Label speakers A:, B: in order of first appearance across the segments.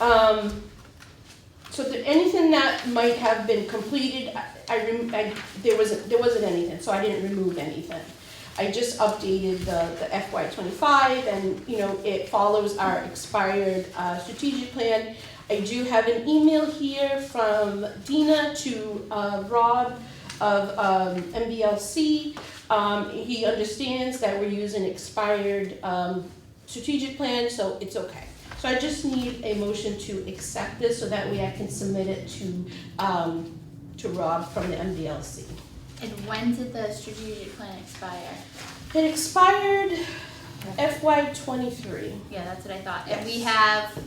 A: Um, so there, anything that might have been completed, I- I, rem- I, there wasn't, there wasn't anything, so I didn't remove anything. I just updated the, the FY twenty-five and, you know, it follows our expired, uh, strategic plan. I do have an email here from Dina to, uh, Rob of, um, MBLC. Um, he understands that we're using expired, um, strategic plan, so it's okay. So I just need a motion to accept this so that way I can submit it to, um, to Rob from the MDLC.
B: And when did the strategic plan expire?
A: It expired FY twenty-three.
B: Yeah, that's what I thought. And we
A: Yes.
B: have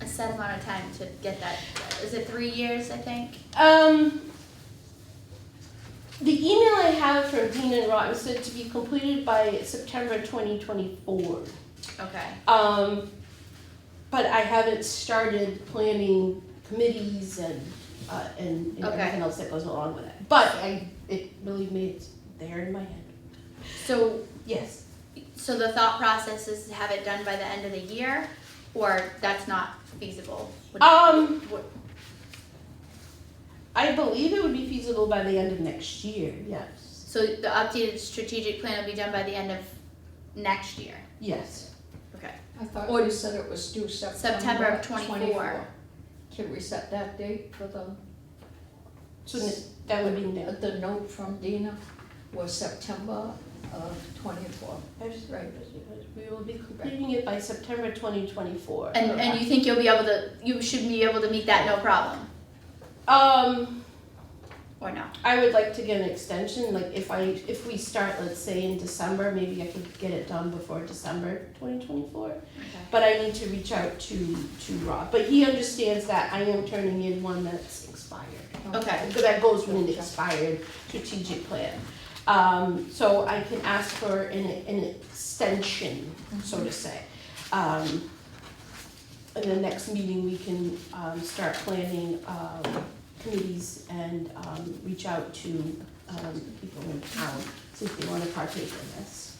B: a set amount of time to get that. Is it three years, I think?
A: Um, the email I have from Dean and Rob said to be completed by September twenty twenty-four.
B: Okay.
A: Um, but I haven't started planning committees and, uh, and, and
B: Okay.
A: everything else that goes along with it. But I, it, believe me, it's there in my head.
B: So,
A: Yes.
B: so the thought process is to have it done by the end of the year, or that's not feasible? Would-
A: Um,
B: would-
A: I believe it would be feasible by the end of next year, yes.
B: So the updated strategic plan will be done by the end of next year?
A: Yes.
B: Okay.
C: I thought
B: Or-
C: you said it was due September.
B: September of 24.
C: 24. Can we set that date for the, uh,
A: So n- that would be next.
C: the note from Dina was September of twenty-four, right?
A: We will be completing it by September twenty twenty-four.
B: And, and you think you'll be able to, you should be able to meet that no problem,
A: Um,
B: or no?
A: I would like to get an extension, like if I, if we start, let's say in December, maybe I could get it done before December twenty twenty-four. But I need to reach out to, to Rob, but he understands that I am turning in one that's expired.
B: Okay.
A: because that goes with an expired strategic plan. Um, so I can ask for an, an extension, so to say. Um, in the next meeting, we can, um, start planning, um, committees and, um, reach out to, um, people in town, see if they wanna partake in this.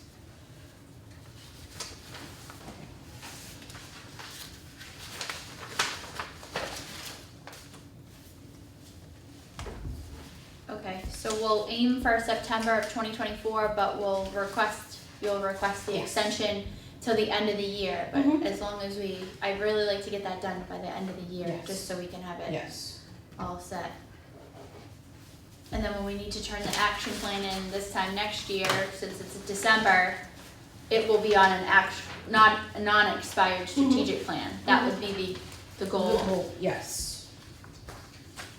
B: Okay, so we'll aim for September of twenty twenty-four, but we'll request, you'll request the
A: Yes.
B: extension till the end of the year, but
A: Mhm.
B: as long as we, I'd really like to get that done by the end of the year,
A: Yes.
B: just so we can have it
A: Yes.
B: all set. And then when we need to turn the action plan in this time next year, since it's December, it will be on an act, not, a non-expired
A: Mm-hmm.
B: strategic plan, that would be the, the goal.
A: Yes.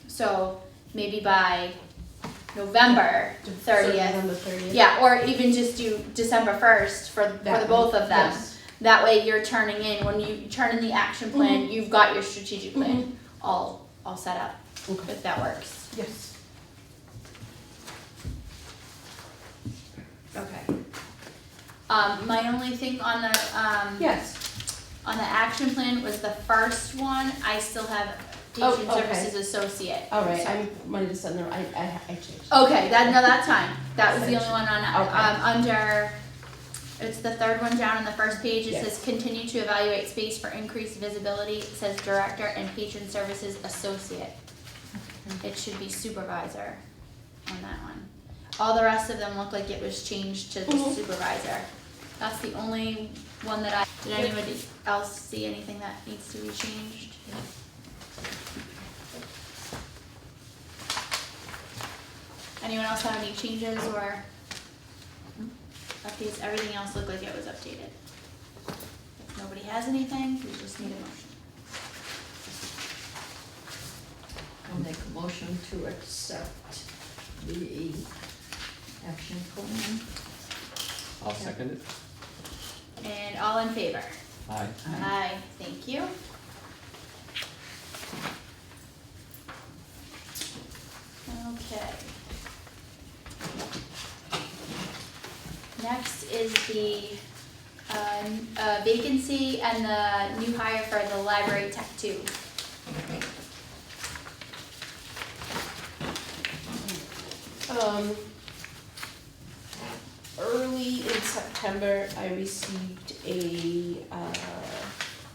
B: So maybe by November thirtieth.
A: November thirtieth.
B: Yeah, or even just do December first for, for the both of them. That way you're turning in, when you turn in the action plan,
A: Mm-hmm.
B: you've got your strategic plan all, all set up,
A: Okay,
B: if that works.
A: yes.
B: Okay. Um, my only thing on the, um,
A: Yes.
B: on the action plan was the first one, I still have
A: Oh,
B: patient
A: okay.
B: services associate.
A: All right,
B: So-
A: I might have said no. I, I, I changed.
B: Okay, that, no, that's fine. That was the only one on,
A: Okay.
B: um, under, it's the third one down on the first page. It says, continue to evaluate space for increased visibility. It says director and patron services associate. It should be supervisor on that one. All the rest of them look like it was changed to the
A: Mhm.
B: supervisor. That's the only one that I, did anybody else see anything that needs to be changed? Anyone else have any changes or updates? Everything else looked like it was updated. If nobody has anything, we just need a motion.
C: I'll make a motion to accept the action plan.
D: I'll second it.
B: And all in favor?
D: Aye.
B: Aye, thank you. Okay. Next is the uh, n- uh, vacancy and the new hire for the library tech two.
A: Um, early in September, I received a, uh,